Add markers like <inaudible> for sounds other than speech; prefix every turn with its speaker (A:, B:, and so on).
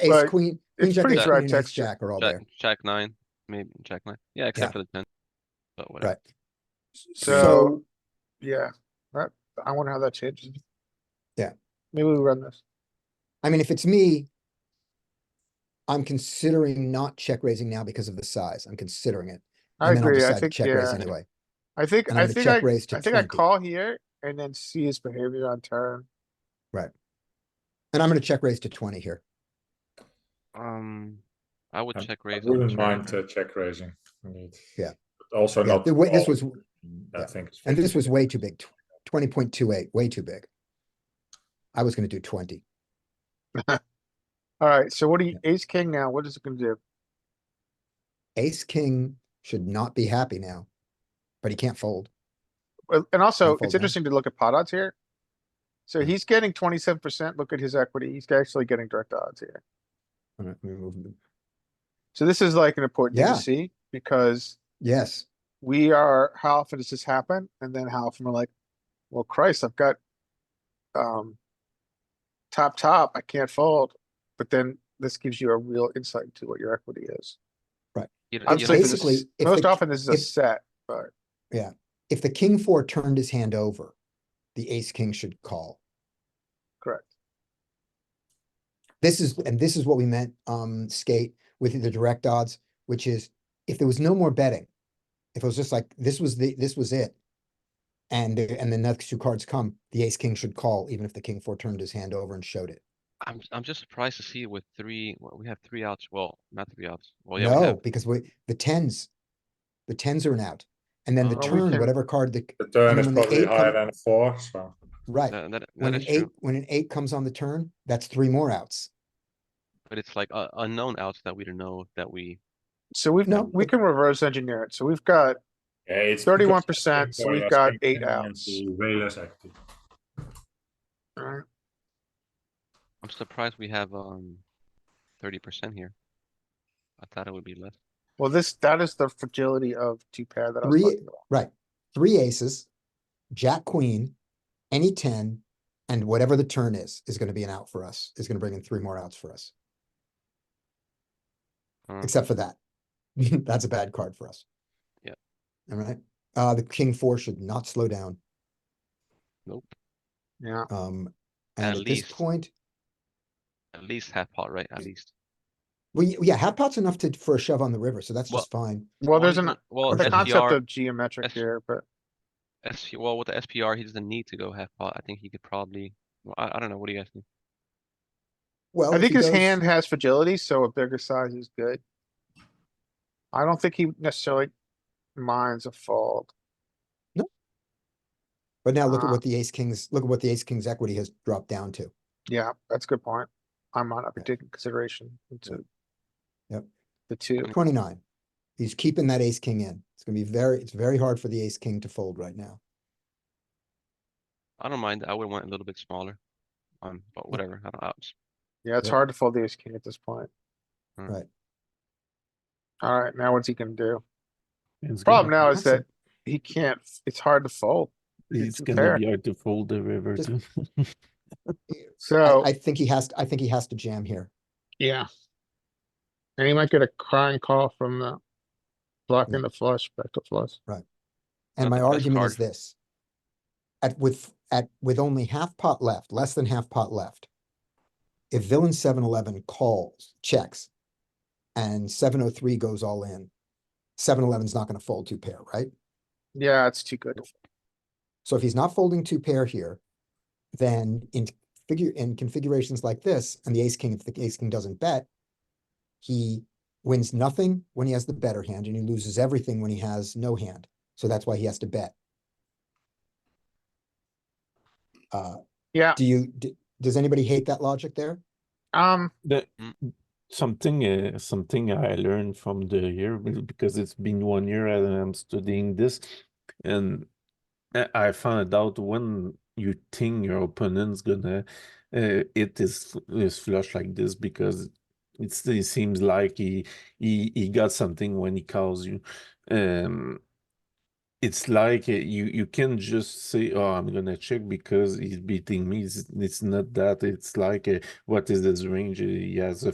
A: ace,
B: Right.
A: queen, queen
B: It's
A: jack,
B: pretty
A: ace
B: dry
A: queen, and ace
B: texture.
A: jack are all
C: Jack,
A: there,
C: jack nine, maybe jack nine. Yeah, except for the ten. But whatever.
A: right?
B: So, yeah, that, I wonder how that changes.
A: Yeah.
B: Maybe we run this.
A: I mean, if it's me, I'm considering not check raising now because of the size. I'm considering it.
B: I
A: and then I'll
B: agree, I
A: decide to
B: think,
A: Check raise
B: yeah,
A: anyway.
B: I think,
A: And
B: I
A: I'm gonna
B: think I,
A: check raise to
B: I think I
A: twenty.
B: call here and then see his behavior on turn.
A: And I'm gonna check raise to twenty here.
C: Um, I would
D: I-
C: check
D: I
C: raise. on
D: wouldn't
C: turn.
D: mind uh, check raising. Indeed.
A: Yeah.
D: But also
A: Yeah,
D: not.
A: the way, this
D: all-
A: was,
D: I
A: yeah.
D: think. it's
A: and this
D: 50.
A: was way too big, twenty point two eight, way too big. I was gonna do twenty.
B: Alright, so what do you, ace king now, what is it gonna do?
A: Ace, king should not be happy now. But he can't fold.
B: Well, And also,
A: fold
B: it's
A: down.
B: interesting to look at pot odds here. So he's getting twenty-seven percent, look at his equity, he's actually getting direct odds here.
A: I'm gonna remove him.
B: So this is like an important thing
A: Yeah.
B: to see, because
A: Yes,
B: we are, how often does this happen? And then how often we're like, well, Christ, I've got um top, top, I can't fold, but then this gives you a real insight to what your equity is.
C: You know-
B: I'm
C: you know,
B: sleeping
C: this
B: this-
A: basically,
C: is-
A: if
B: Most
A: the-
B: often this is a
A: if-
B: set, but
A: if the king four turned his hand over, the ace, king should call.
B: correct.
A: This is, and this is what we meant, um, skate with the direct odds, which is if there was no more betting. If it was just like, this was the, this was it. And, the- and the next two cards come, the ace, king should call, even if the king four turned his hand over and showed it.
C: I'm, I'm just surprised to see with three, well, we have three outs, well, not three outs, well, yeah, we
A: No,
C: have,
A: because we, the tens, the tens are an out. And then the
C: Oh, we
A: turn,
B: can-
A: whatever card the,
D: The turn
A: and
D: is
A: when the
D: probably
A: eight
D: higher
A: come-
D: than four, so
A: right,
C: uh, that, that- that
A: when an
C: is
A: eight,
C: true,
A: when an eight comes on the turn, that's three more outs.
C: but it's like uh, unknown outs that we don't know that we,
B: So we've,
A: No,
B: we
A: but-
B: can reverse engineer it. So we've got
D: yeah, it's.
B: 31%,
D: because-
B: so we've
D: Yes,
B: got
D: king
B: eight
D: ten and
B: outs.
D: the Way less active.
B: Alright,
C: I'm surprised we have, um, thirty percent here. I thought it would be less.
B: well, this, that is the fragility of two pair that I was
A: Three-
B: talking about.
A: Right. Three aces, jack, queen, any ten, and whatever the turn is, is gonna be an out for us, is gonna bring in three more outs for us,
C: Huh.
A: except for that. <laughs> That's a bad card for us.
C: Yeah.
A: Alright, uh, the king four should not slow down,
C: Nope,
B: Yeah,
A: um,
C: At
A: and at this
C: least.
A: point,
C: at least half pot, right, at least.
A: well, y- yeah, half pot's enough to, for a shove on the river, so that's
C: Well-
A: just fine.
B: well, there's
C: Only
B: an,
C: the- Well,
B: the concept
C: SPR,
B: of geometric
C: S-
B: here, but
C: SP, well, with the SPR, he doesn't need to go half pot, I think he could probably, well, I, I don't know, what do you guys think?
A: Well,
B: I
A: if he
B: think his
A: goes-
B: hand has fragility, so a bigger size is good. I don't think he necessarily minds a fold.
A: But now look at
B: Ah.
A: what the ace kings, look at what the ace king's equity has dropped down to.
B: Yeah, that's a good point. I might not be
A: Yeah.
B: taking consideration into.
A: Yep.
B: The two,
A: Twenty-nine. He's keeping that ace king in. It's gonna be very, it's very hard for the ace king to fold right now.
C: I don't mind, I would want a little bit smaller, um, but whatever, I don't, outs.
B: yeah, it's
A: Yep.
B: hard to fold the ace king at this point.
C: Mm.
A: Right.
B: Alright, now what's he gonna do? Problem now is that he can't, it's hard to fold.
E: It's
B: it's
E: gonna
B: fair.
E: be hard to fold the river
A: Just-
E: too. <laughs>
B: So, oh.
A: I, I think he has, I think he has to jam here.
B: yeah. And he might get a crying call from the blocking the flush, back to flush.
A: And my
C: Not the best
A: argument is
C: card.
A: this. At with, at, with only half pot left, less than half pot left. If villain seven eleven calls, checks. And seven oh three goes all in. Seven eleven's not gonna fold two pair, right?
B: Yeah, it's too good.
A: So if he's not folding two pair here, then in figure, in configurations like this, and the ace king, if the ace king doesn't bet, he wins nothing when he has the better hand and he loses everything when he has no hand. So that's why he has to bet. Uh,
B: Yeah,
A: do you, d- does anybody hate that logic there?
B: um,
E: The-
C: Mm.
E: something uh, something I learned from the year be- because it's been one year and I'm studying this, and I I found out when you think your opponent's gonna uh, it is is flush like this because it's, it seems like he he he got something when he calls you. Um, it's like uh, you you can just say, "Oh, I'm gonna check because he's beating me." It's, it's not that. It's like, uh, what is this range? Uh, He has a